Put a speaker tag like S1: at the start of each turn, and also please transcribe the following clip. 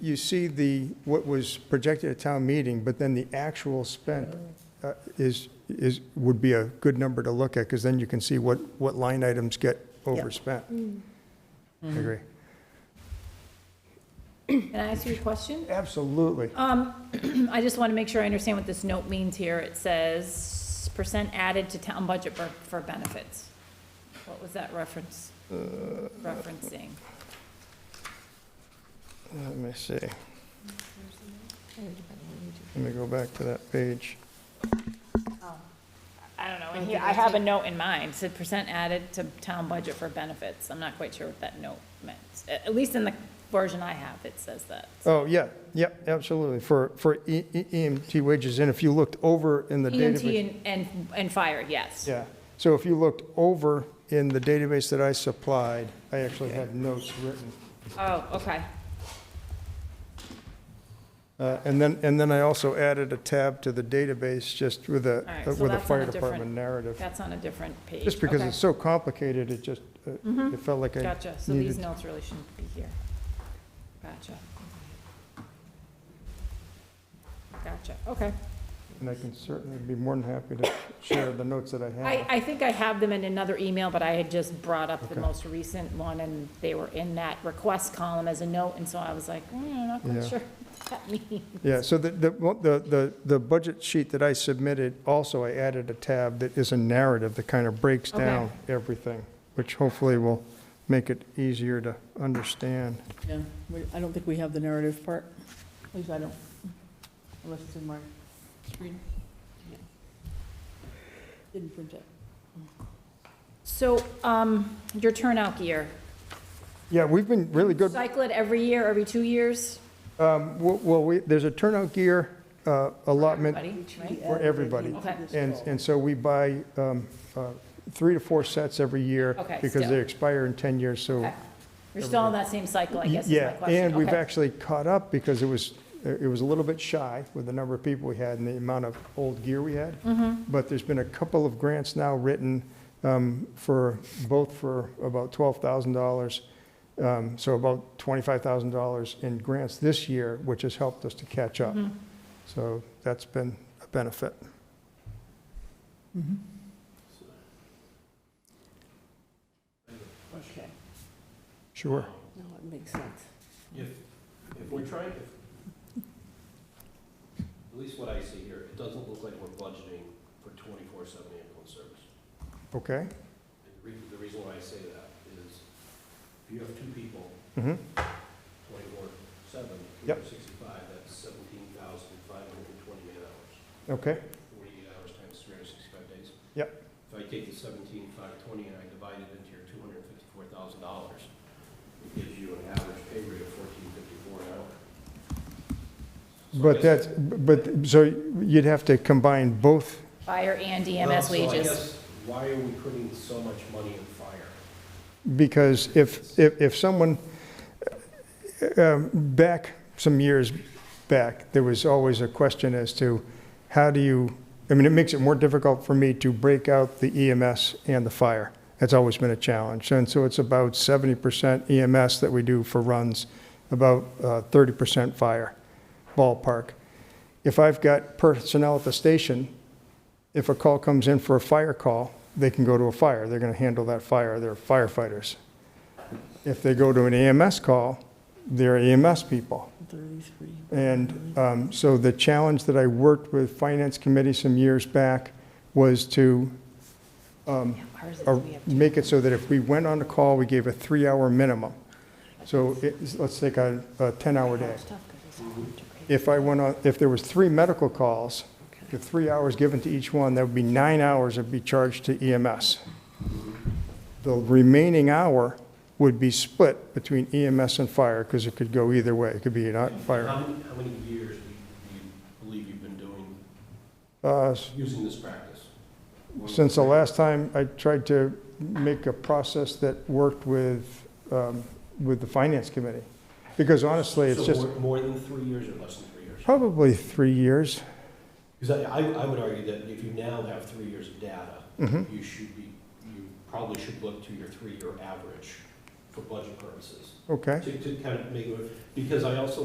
S1: you see the, what was projected at town meeting, but then the actual spent uh, is, is, would be a good number to look at, because then you can see what, what line items get overspent. I agree.
S2: Can I ask you a question?
S1: Absolutely.
S2: Um, I just want to make sure I understand what this note means here. It says percent added to town budget for, for benefits. What was that reference, referencing?
S1: Let me see. Let me go back to that page.
S2: I don't know, and here, I have a note in mind, It said percent added to town budget for benefits. I'm not quite sure what that note meant. At, at least in the version I have, it says that.
S1: Oh, yeah, yep, absolutely, for, for E- E- EMT wages, and if you looked over in the database.
S2: EMT E and, and, and fire, yes.
S1: Yeah, so if you looked over in the database that I supplied, I actually had notes written.
S2: Oh, okay.
S1: Uh, And then, and then I also added a tab to the database just with a,
S2: All right, so
S1: with a
S2: that's on a
S1: fire
S2: different-
S1: department narrative.
S2: That's on a different page.
S1: Just because
S2: Okay. Mm-hmm.
S1: it's so complicated, it just, uh, it felt like I
S2: Gotcha, so these
S1: needed.
S2: notes really shouldn't be here. Gotcha. Gotcha, okay.
S1: And I can certainly be more than happy to share the notes that I
S2: I,
S1: have.
S2: I think I have them in another email, but I had just brought up the
S1: Okay.
S2: most recent one, and they were in that request column as a note, and so I was like, mm, I'm not
S1: Yeah.
S2: quite sure what that means.
S1: Yeah, so the, the, the, the- the budget sheet that I submitted, also I added a tab that is a narrative that kind of breaks
S2: Okay.
S1: down everything, which hopefully will make it easier to understand.
S3: Yeah, we- I don't think we have the narrative part. At least I don't, unless it's in my screen. Yeah. Didn't print it.
S2: So, um, your turnout gear,
S1: Yeah, we've been really good.
S2: cycle it every year, every two years,
S1: Um, w- Well, we, there's a turnout gear uh, allotment,
S2: buddy, right?
S1: For everybody.
S2: Okay.
S1: and, and so we buy um, uh, three to four sets every year.
S2: Okay,
S1: Because they
S2: still.
S1: expire in 10 years, so.
S2: Okay. You're still in that same cycle, I guess is my
S1: Yeah,
S2: question.
S1: and we've
S2: Okay.
S1: actually caught up because it was, uh, it was a little bit shy with the number of people we had and the amount of old gear we had.
S2: Mm-hmm.
S1: But there's been a couple of grants now written um, for, both for about $12,000. um, So about $25,000 in grants this year, which has helped us to catch up.
S2: Mm-hmm.
S1: So that's been a benefit.
S3: Okay,
S1: Sure.
S3: no, it makes sense.
S4: If, if we're trying, if, at least what I see here, it doesn't look like we're budgeting for twenty-four seven ambulance service.
S1: Okay.
S4: And the reason, the reason why I say that is if you have two people,
S1: Mhm.
S4: twenty-four seven, three
S1: Yep.
S4: hundred sixty-five, that's seventeen thousand five hundred and twenty-eight hours.
S1: Okay.
S4: Forty-eight hours times three hundred sixty-five days.
S1: Yep.
S4: If I take the seventeen five twenty and I divide it into your two hundred and fifty-four thousand dollars, it gives you an average pay rate of fourteen fifty-four an hour. So I
S1: But that's,
S4: guess-
S1: but, so you'd have to combine both
S2: Fire and
S4: Well,
S2: EMS
S4: so I
S2: wages.
S4: guess, Why are we putting so much money in fire?
S1: Because if, if, if someone, um, back some years back, there was always a question as to how do you, I mean, it makes it more difficult for me to break out the EMS and the fire. That's always been a challenge. And so it's about 70% EMS that we do for runs, about uh, 30% fire ballpark. If I've got personnel at the station if a call comes in for a fire call, they can go to a fire. They're going to handle that fire. They're firefighters. If they go to an EMS call, they're EMS people.
S3: Thirty-three.
S1: And um, so the challenge that I worked with Finance Committee some years back was to uh, make it so that if we went on a call, we gave a three-hour minimum. So it's- let's take a a 10-hour day. If I went on, if there was three medical calls, the three hours given to each one, that would be nine hours would be charged to EMS. The remaining hour would be split between EMS and fire, because it could go either way. It could be not
S4: How
S1: fire.
S4: many, how many years do you- do you believe you've been doing,
S1: Uh, s-
S4: using this practice?
S1: Since the last time I tried to make a process that worked with, um, with the finance committee. Because honestly, it's
S4: So
S1: just
S4: more- More than three years or less than three years?
S1: probably three years.
S4: Because I, I I would argue that if you now have three years of data,
S1: Mhm.
S4: you should be, you probably should look to your three-year average for budget purposes.
S1: Okay.
S4: To, to kind of make, it- because I also